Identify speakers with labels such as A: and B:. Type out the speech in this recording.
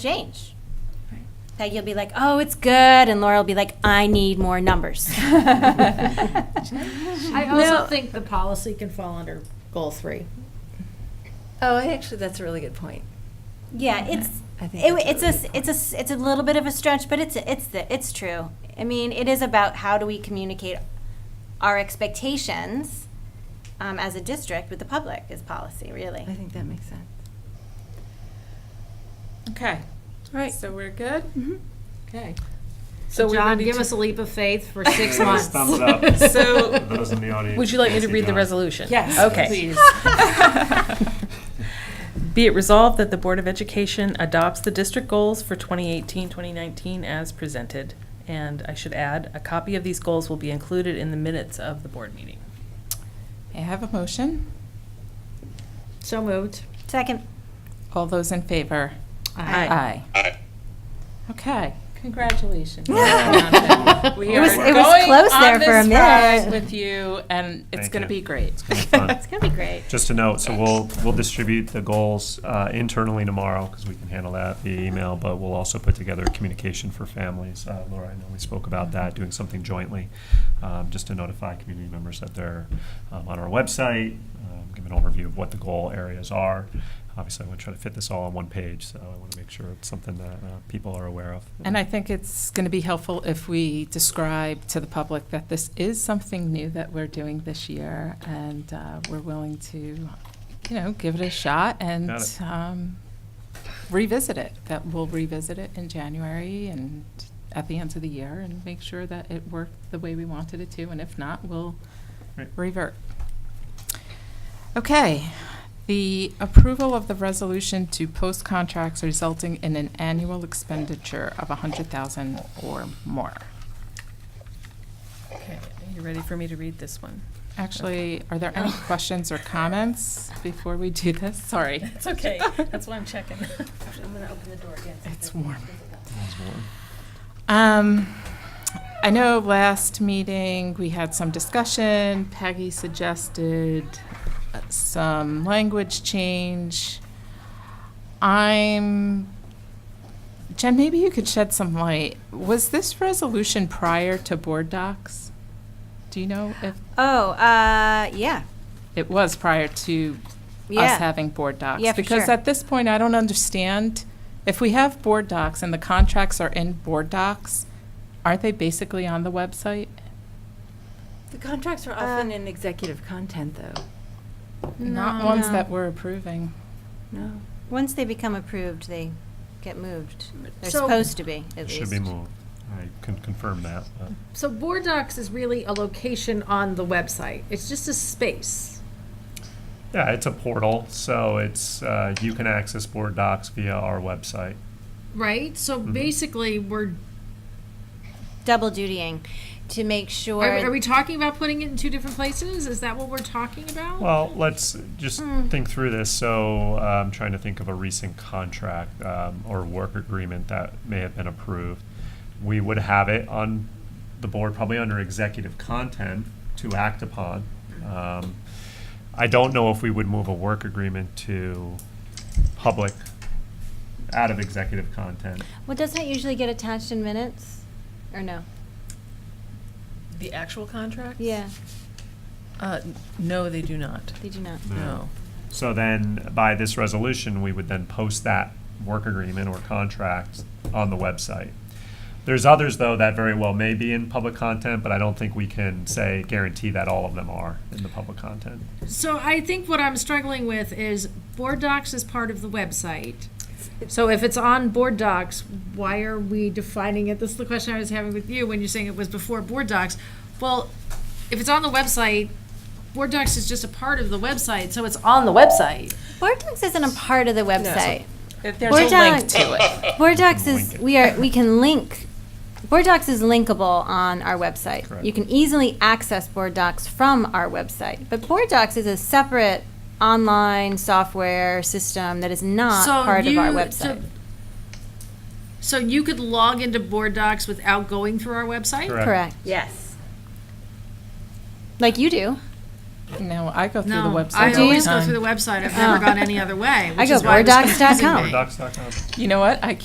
A: change.
B: Right.
A: That you'll be like, oh, it's good, and Laura will be like, I need more numbers.
B: I also
C: No.
B: think the policy can fall under goal three.
C: Oh, actually, that's a really good point.
A: Yeah, it's
C: I think
A: it,
C: that's a
A: it's a
C: really
A: s-
C: good
A: it's a s- it's a little bit of a stretch, but it's it's the, it's true. I mean, it is about how do we communicate our expectations um, as a district with the public is policy really.
C: I think that makes sense.
D: Okay,
C: Right.
D: so we're good? Okay.
B: So
D: we're
B: John,
D: ready
B: give
D: to-
B: us a leap of faith for six
E: Give
B: months.
E: us thumbs up.
D: So-
E: Those in the audience.
F: Would you like me to
E: Nancy
F: read the
E: John.
F: resolution?
D: Yes,
F: Okay.
D: please.
F: Be it resolved that the Board of Education adopts the district goals for 2018, 2019 as presented. And I should add, a copy of these goals will be included in the minutes of the board meeting.
G: May I have a motion?
B: So moved.
A: Second,
G: All those in favor?
F: Aye.
G: Aye. Okay.
D: Congratulations. We
A: It
D: are
A: was- it was
G: going
A: close there
G: on
A: for a
G: this
A: minute.
G: ride With you, and it's
E: Thank
G: going to
E: you.
G: be great.
E: It's gonna be fun.
A: it's gonna be great.
E: Just a note, so we'll, we'll distribute the goals uh, internally tomorrow, because we can handle that via email, but we'll also put together a communication for families. Uh, Laura, I know we spoke about that, doing something jointly, um, just to notify community members that they're um, on our website, um, give an overview of what the goal areas are. Obviously, I want to try to fit this all on one page, so I want to make sure it's something that uh, people are aware of.
G: And I think it's going to be helpful if we describe to the public that this is something new that we're doing this year, and uh, we're willing to, you know, give it a shot and
E: Got it.
G: um, revisit it. That we'll revisit it in January and at the end of the year and make sure that it worked the way we wanted it to, and if not, we'll
E: Right.
G: revert. Okay, the approval of the resolution to post contracts resulting in an annual expenditure of 100000 or more.
F: Okay, are you ready for me to read this one?
G: Actually, are there any questions or comments before we do this? Sorry,
F: It's okay, that's why I'm checking. I'm gonna open the door again.
G: it's warm. Um, I know last meeting, we had some discussion. Peggy suggested uh, some language change. I'm, Jen, maybe you could shed some light. Was this resolution prior to board docs? Do you know if
A: Oh, uh, yeah,
G: it was prior to us
A: yeah.
G: having board docs.
A: Yeah, for
G: Because
A: sure.
G: at this point, I don't understand, if we have board docs and the contracts are in board docs, aren't they basically on the website?
C: The contracts are often in executive content, though.
G: Not
A: No.
G: ones
A: No.
G: that we're approving.
C: No.
A: Once they become approved, they get moved. They're
B: So-
A: supposed to be at least.
E: Should be moved. I can confirm that, but.
B: So board docs is really a location on the website. It's just a space.
E: Yeah, it's a portal, so it's, uh, you can access Board Docs via our website.
B: Right? So
E: Mm-hmm.
B: basically, we're,
A: Double dutying to make sure.
B: are, are we talking about putting it in two different places? Is that what we're talking about?
E: Well, let's just think through this. So uh, I'm trying to think of a recent contract um, or work agreement that may have been approved. We would have it on the board, probably under executive content to act upon. Um, I don't know if we would move a work agreement to public out of executive content.
A: Well, doesn't it usually get attached in minutes, or no?
F: The actual contracts?
A: Yeah,
F: Uh, no, they do not,
A: they do not.
F: no.
E: So then, by this resolution, we would then post that work agreement or contract on the website. There's others, though, that very well may be in public content, but I don't think we can say, guarantee that all of them are in the public content.
B: So I think what I'm struggling with is board docs is part of the website. So if it's on board docs, why are we defining it? This is the question I was having with you when you're saying it was before board docs. Well, if it's on the website, board docs is just a part of the website, so it's on the website.
A: Board Docs isn't a part of the website.
F: There's
A: We're
F: a link
A: done.
F: to it.
A: Board Docs
E: Link
A: is
E: it.
A: we are we can link. Board Docs is linkable on our website.
E: Correct.
A: You can easily access Board Docs from our website, but Board Docs is a separate online software system that is not
B: So
A: part of our
B: you-
A: website.
B: so- So you could log into board docs without going through our website?
A: Correct.
D: Yes.
A: Like you do.
G: No, I go through the
B: No,
G: website
B: I
G: all the
B: always go through the
G: time.
B: website. I've never gone any other way, which
A: go
B: is why it was
A: boarddocs.com.
B: confusing me.
E: Boarddocs.com.
G: You know what? I